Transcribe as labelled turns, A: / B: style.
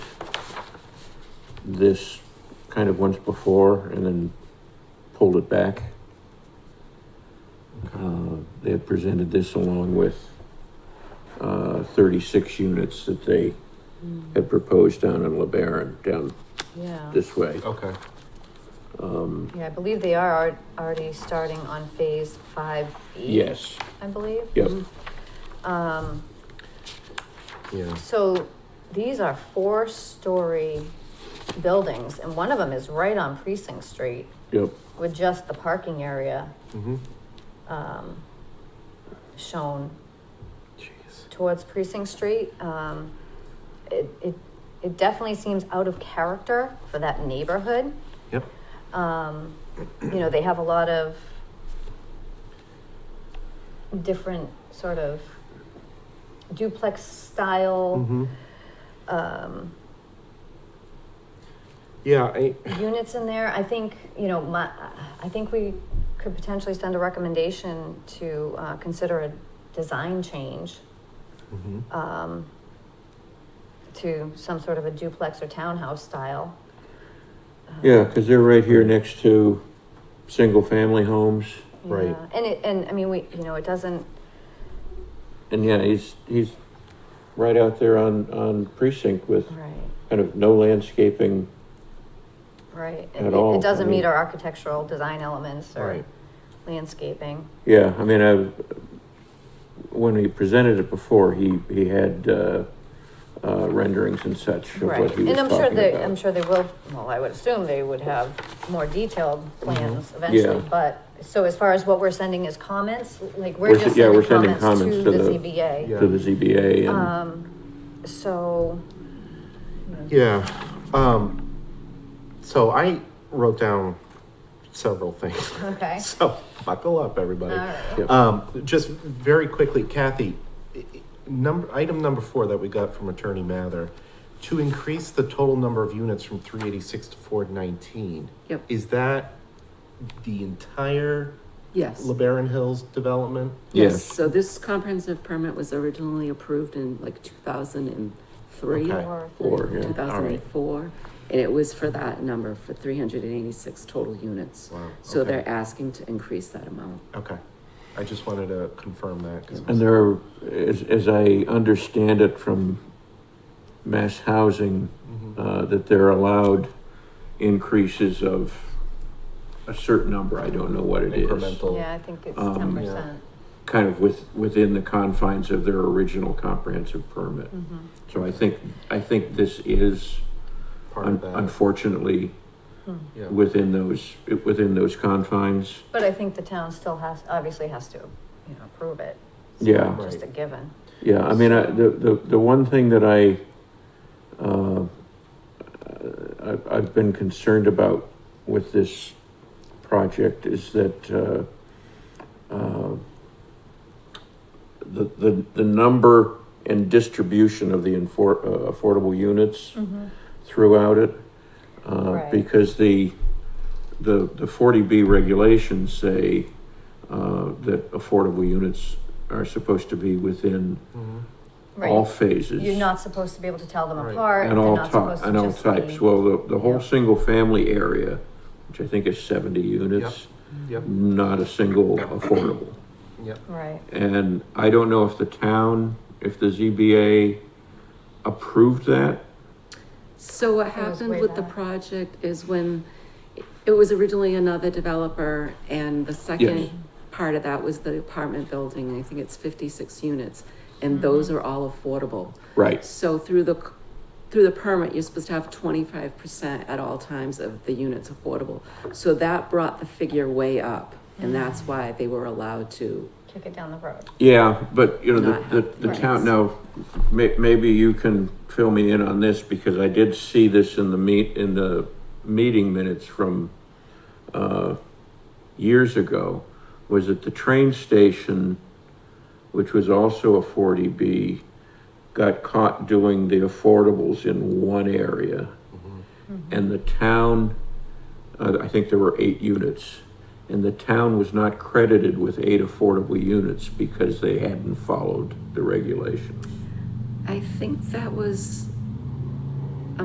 A: this kind of once before and then pulled it back. Uh, They had presented this along with uh, thirty-six units that they had proposed down in LeBaron, down
B: Mm, Yeah,
A: this way.
C: Okay.
A: Um,
B: yeah, I believe they are al- already starting on phase five E.
A: yes,
B: I believe.
A: Yep.
B: Um,
C: Yeah.
B: so these are four-story buildings and one of them is right on Precinct Street
A: yep,
B: with just the parking area,
C: Mm-hmm.
B: um, shown
C: Jeez.
B: towards Precinct Street. Um, it, it, it definitely seems out of character for that neighborhood.
C: Yep.
B: Um, you know, they have a lot of different sort of duplex style
C: Mm-hmm.
B: um,
C: Yeah. I,
B: units in there. I think, you know, my, I think we could potentially send a recommendation to uh, consider a design change
C: Mhm.
B: um, to some sort of a duplex or townhouse style. Uh,
A: yeah, because they're right here next to single-family homes.
C: Right.
B: Yeah. And it, and I mean, we, you know, it doesn't,
A: And yeah, he's, he's right out there on, on precinct with
B: right,
A: kind of no landscaping.
B: right.
A: At
B: It- it-
A: all, I
B: It doesn't meet
A: mean-
B: our architectural design elements or
C: Right.
B: landscaping.
A: Yeah, I mean, I, when he presented it before, he, he had, uh, uh, renderings and such of
B: Right,
A: what he was
B: and I'm sure
A: talking
B: they, I'm
A: about.
B: sure they will, well, I would assume they would have more detailed plans eventually,
A: Mm-hmm. Yeah.
B: but, so as far as what we're sending is comments, like,
A: We're
B: we're
A: s-
B: just
A: yeah, we're
B: sending comments to the
C: Yeah.
B: ZBA.
A: To the ZBA and,
B: Um, so,
C: Yeah. Um, so I wrote down several things.
B: okay,
C: So buckle up, everybody.
B: alright,
A: yeah,
C: Um, just very quickly, Kathy, i- i- number, item number four that we got from Attorney Mather, to increase the total number of units from three eighty-six to four nineteen.
D: Yep.
C: Is that the entire
D: Yes.
C: LeBaron Hills development?
A: yes,
D: So this comprehensive permit was originally approved in like two thousand and three,
C: Okay.
B: or
A: or,
D: two
A: yeah,
D: thousand and four. And it was for that number, for three hundred and eighty-six total units.
C: Wow,
D: So
C: okay.
D: they're asking to increase that amount.
C: Okay, I just wanted to confirm that. 'cause it
A: and
C: was-
A: there, are- as, as I understand it from mass housing,
C: Mhm.
A: uh, that they're allowed increases of a certain number, I don't know what it is.
C: Incremental.
B: yeah, I think it's
A: Um,
B: ten percent.
A: Kind of with, within the confines of their original comprehensive permit.
B: Mm-hmm.
A: So I think, I think this is
C: Part of
A: un-
C: that. Hmm.
A: unfortunately
C: Yeah.
A: within those, within those confines.
B: But I think the town still has, obviously has to, you know, approve it. It's
A: Yeah.
B: not Just a
C: Right.
B: given.
A: Yeah, I mean, I, the, the, the one thing that I, uh, I, I've been concerned about with this project is that, uh, uh, the, the, the number and distribution of the infor, uh, affordable units throughout it. Uh,
B: Right.
A: because the, the, the forty B regulations say, uh, that affordable units are supposed to be within
C: Mhm.
A: all
B: Right,
A: phases.
B: you're not supposed to be able to tell them
C: Right.
B: apart, they're
A: And all
B: not
A: types,
B: supposed to
A: and all
B: just
A: types,
B: be.
A: well, the, the whole
B: Yeah.
A: single family area, which I think is seventy units,
C: Yep,
A: not a single affordable.
C: yep.
B: Right,
A: And I don't know if the town, if the ZBA approved that,
D: So what
B: was
D: happened
B: way
D: with the
B: back.
D: project is when it- it was originally another developer and the second part of that was the apartment building, I think it's fifty-six units.
B: Mm-hmm.
D: And those are all affordable.
A: right,
D: So through the, c- through the permit, you're supposed to have twenty-five percent at all times of the units affordable. So that brought the figure way up, and that's why they were allowed to.
B: kick it down the road.
A: yeah, but, you know,
D: Not
A: the,
D: have
A: the, the
D: the
A: town,
D: rights.
A: now, may, maybe you can fill me in on this, because I did see this in the meet, in the meeting minutes from, uh, years ago, was that the train station, which was also a forty B, got caught doing the affordables in one area. And the town, uh, I think there were eight units, and the town was not credited with eight affordable units because they hadn't followed the regulations.
D: I think that was